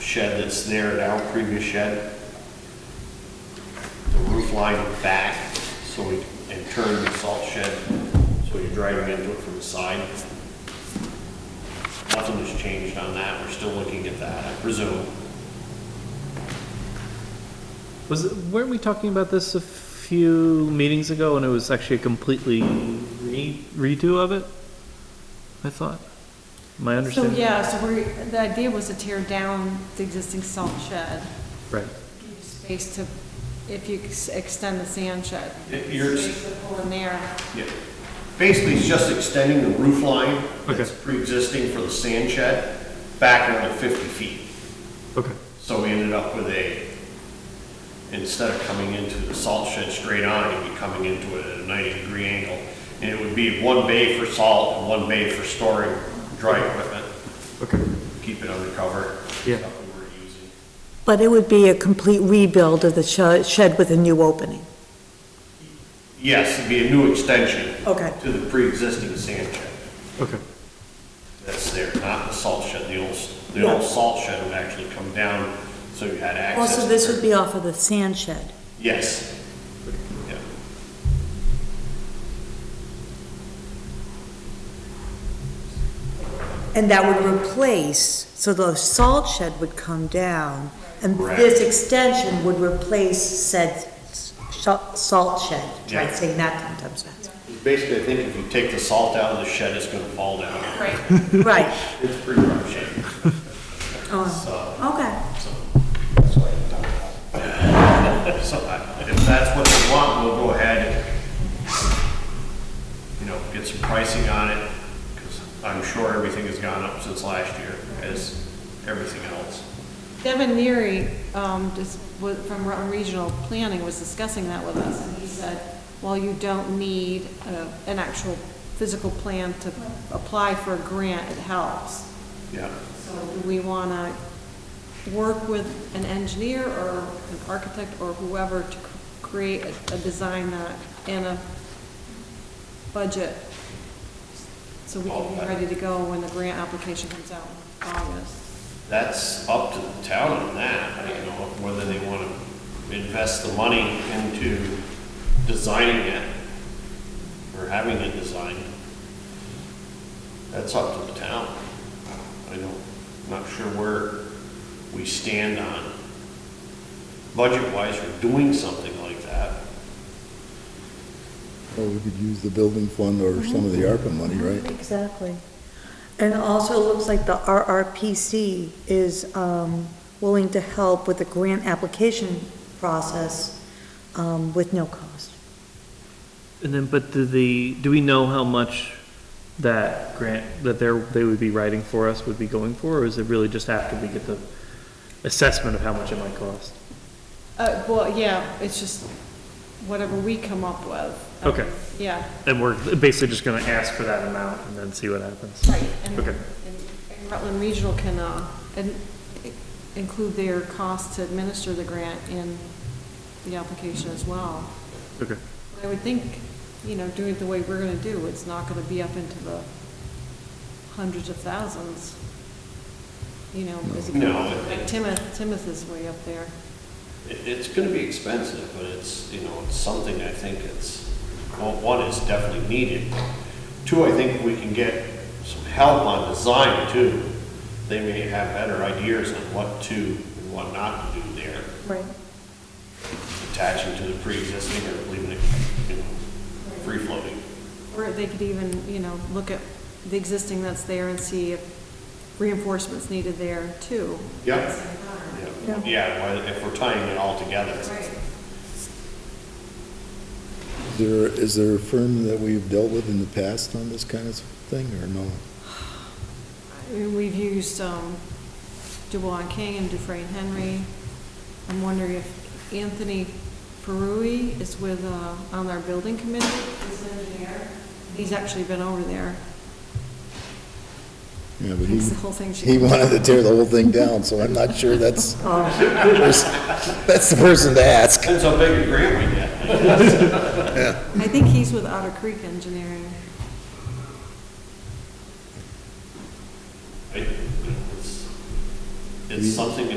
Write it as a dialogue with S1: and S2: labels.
S1: shed that's there now, previous shed, the roof line back, so we, and turn the salt shed, so you're driving into it from the side. Nothing has changed on that, we're still looking at that, I presume.
S2: Was, it- weren't we talking about this a few meetings ago and it was actually a completely re- redo of it? I thought, my
S3: So,
S2: understanding.
S3: yeah, so we, the idea was to tear down the existing salt shed,
S2: Right,
S3: give space to, if you ex- extend the sand shed.
S1: It- you're-
S3: Space to pull in there.
S1: Yeah. Basically, it's just extending the roof line that's
S2: Okay.
S1: pre-existing for the sand shed back another 50 feet.
S2: okay,
S1: So we ended up with a, instead of coming into the salt shed straight on, you'd be coming into it at a 90 degree angle. And it would be one bay for salt and one bay for storing dry equipment,
S2: okay,
S1: keep it undercover.
S2: Yeah.
S1: stuff we weren't using.
S4: But it would be a complete rebuild of the sh- shed with a new opening.
S1: Yes, it'd be a new extension
S4: Okay.
S1: to the pre-existing sand shed
S2: okay,
S1: that's there, not the salt shed. The old, the old
S4: Yeah.
S1: salt shed would actually come down, so you had access.
S4: Also,
S1: to
S4: this
S1: it.
S4: would be off of the sand shed.
S1: Yes. Yeah.
S4: And that would replace, so the salt shed would come down, and
S1: Correct.
S4: this extension would replace said sh- salt shed. Try
S1: Yeah.
S4: saying that ten times fast.
S1: Basically, I think if you take the salt out of the shed, it's gonna fall down.
S3: Right.
S4: Right,
S1: It's pretty rough shape.
S4: oh,
S1: So,
S4: okay.
S1: so I- if that's what you want, we'll go ahead and, you know, get some pricing on it, because I'm sure everything has gone up since last year, as everything else.
S3: Devin Neary, um, just, wa- from Rutland Regional Planning was discussing that with us, and he said, well, you don't need a- an actual physical plan to apply for a grant, it helps.
S1: Yeah.
S3: So do we want to work with an engineer or an architect or whoever to c- create a, a design that, and a budget? So we can be ready to go when the grant application comes out in August.
S1: That's up to the town on that, you know, whether they want to invest the money into designing it or having it designed. That's up to the town. I don't, not sure where we stand on budget-wise for doing something like that.
S5: Well, we could use the building fund or
S3: Mhm.
S5: some of the ARPA money, right?
S4: Mm-hmm. Exactly. And also, it looks like the RRPC is um, willing to help with the grant application process um, with no cost.
S2: and then, but do the, do we know how much that grant, that they're, they would be writing for us would be going for, or is it really just after we get the assessment of how much it might cost?
S3: Uh, well, yeah, it's just whatever we come up with.
S2: Okay.
S3: Yeah.
S2: And we're basically just gonna ask for that amount and then see what happens.
S3: Right, and,
S2: Okay.
S3: and Rutland Regional can, uh, in- include their cost to administer the grant in the application as well.
S2: Okay,
S3: I would think, you know, doing it the way we're gonna do, it's not gonna be up into the hundreds of thousands. You know, is it?
S1: No.
S3: Like Timoth, Timoth is way up there.
S1: It, it's gonna be expensive, but it's, you know, it's something I think it's, well, one is definitely needed. Two, I think we can get some help on design too. They may have better ideas on what to and what not to do there,
S4: Right.
S1: attaching to the pre-existing or leaving it, you know, free floating.
S3: Or they could even, you know, look at the existing that's there and see if reinforcement's needed there too.
S1: Yeah.
S4: Yeah.
S1: Yeah, why- if we're tying it all together.
S5: Is there, is there a firm that we've dealt with in the past on this kind of thing, or no?
S3: I mean, We've used um, Dubois and King and Dufresne Henry. I'm wondering if Anthony Perui is with, uh, on our building committee? He's an engineer. He's actually been over there.
S5: Yeah, but
S3: Fix the whole thing.
S5: he, he wanted to tear the whole thing down, so I'm not sure that's, that's the person to ask.
S1: Depends how big a grant we get.
S3: I think he's with Otter Creek Engineering.
S1: I- It's it's something to